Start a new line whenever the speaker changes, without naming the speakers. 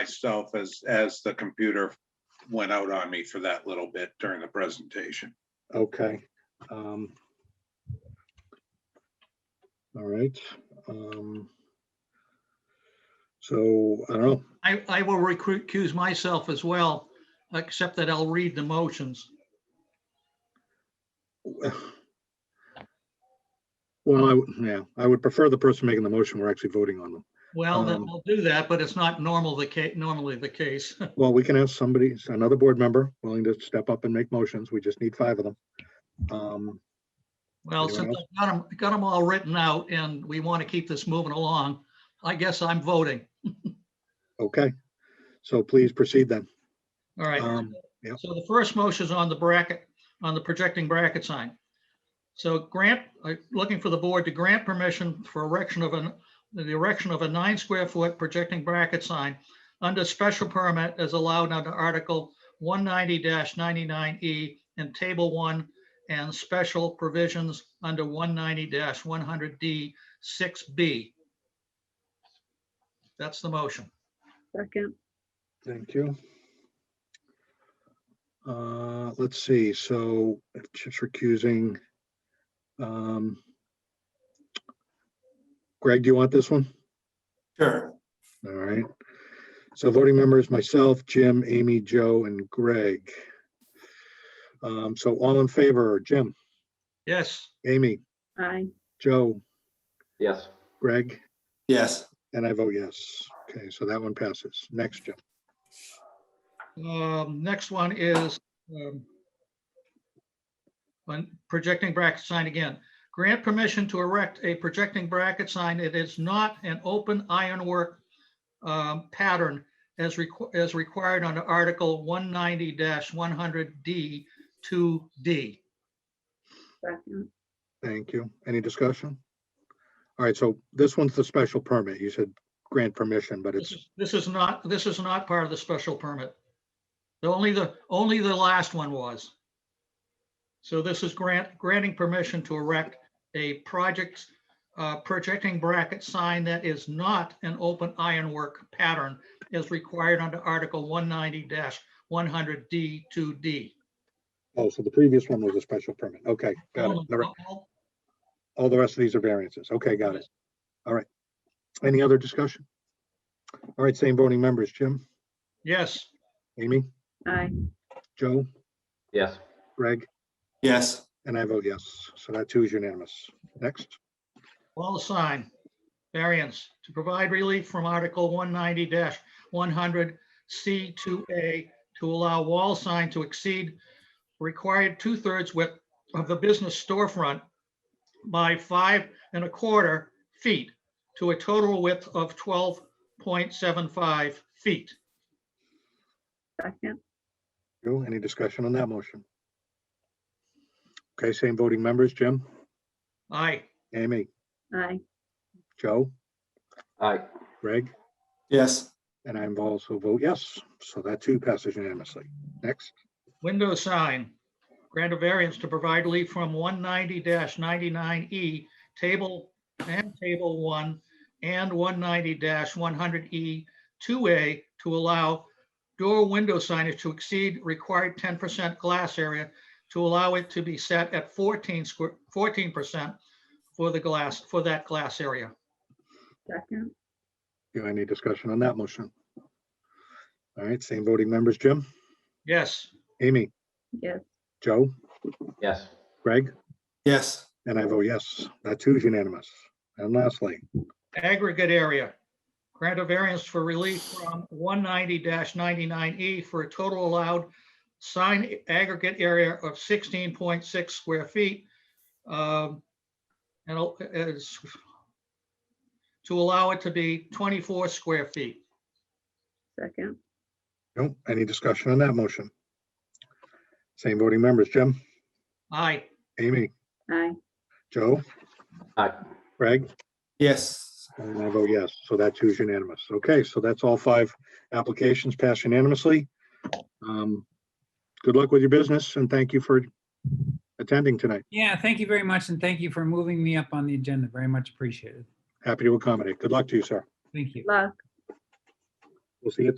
myself as, as the computer went out on me for that little bit during the presentation.
Okay. um, All right. um, So, I don't know,
I, I will recuse myself as well, except that I'll read the motions.
well, I, would- yeah, I would prefer the person making the motion, we're actually voting on them.
Well, then
Um,
I'll do that, but it's not normal the ca, normally the case.
Well, we can have somebody, another board member willing to step up and make motions, we just need five of them. Um,
Well,
Anyone
since I've got them, got them all written out and we want to keep this moving along, I guess I'm voting.
Okay, so please proceed then.
All right.
Um, yep.
So the first motion is on the bracket, on the projecting bracket sign. So grant, uh, looking for the board to grant permission for erection of an, the erection of a nine square foot projecting bracket sign under special permit as allowed under Article one ninety ninety-nine E and Table one and special provisions under one ninety one hundred D six B. That's the motion.
Second,
Thank you. Uh, let's see, so just recusing. um, Greg, do you want this one?
Sure.
All right. So voting members, myself, Jim, Amy, Joe, and Greg. Um, so all in favor, Jim,
Yes,
Amy,
aye,
Joe,
Yes,
Greg,
Yes,
and I vote yes. Okay, so that one passes. Next, Jim.
Um, Next one is um, on projecting bracket sign again. Grant permission to erect a projecting bracket sign. It is not an open ironwork um, pattern as requ- as required under Article 190-100D 2D.
second,
Thank you. Any discussion? All right, so this one's the special permit. You said grant permission, but
This
it's,
is- this is not, this is not part of the special permit. The only the, only the last one was. So this is grant, granting permission to erect a project, uh, projecting bracket sign that is not an open ironwork pattern as required under Article one ninety one hundred D two D.
oh, so the previous one was a special permit. Okay, got it. The re- All the rest of these are variances. Okay, got it. All right. Any other discussion? All right, same voting members, Jim,
Yes,
Amy,
aye,
Joe,
yes,
Greg,
yes,
and I vote yes. So that too is unanimous. Next,
wall sign variance to provide relief from Article one ninety one hundred C two A to allow wall sign to exceed required two-thirds width of the business storefront by five and a quarter feet to a total width of twelve point seven five feet.
second,
Joe, any discussion on that motion? Okay, same voting members, Jim,
Aye,
Amy,
aye,
Joe,
aye,
Greg,
yes,
and I'm also vote yes. So that too passes unanimously. Next,
window sign. Grant a variance to provide relief from one ninety ninety-nine E, table and table one, and one ninety one hundred E two A to allow door window signage to exceed required ten percent glass area to allow it to be set at fourteen square, fourteen percent for the glass, for that glass area.
second,
do any discussion on that motion? All right, same voting members, Jim,
Yes,
Amy,
yes,
Joe,
yes,
Greg,
yes,
And I vote yes, that too is unanimous. And lastly,
aggregate area. Grant a variance for relief from one ninety ninety-nine E for a total allowed sign aggregate area of sixteen point six square feet. um, And al- as- to allow it to be twenty-four square feet.
second,
no, any discussion on that motion? Same voting members, Jim,
Aye,
Amy,
aye,
Joe,
aye,
Greg,
yes.
and I vote yes, so that too is unanimous. Okay, so that's all five applications passed unanimously. Um, Good luck with your business and thank you for attending tonight.
Yeah, thank you very much, and thank you for moving me up on the agenda. Very much appreciated.
Happy to accommodate. Good luck to you, sir.
Thank you.
luck.
We'll see you.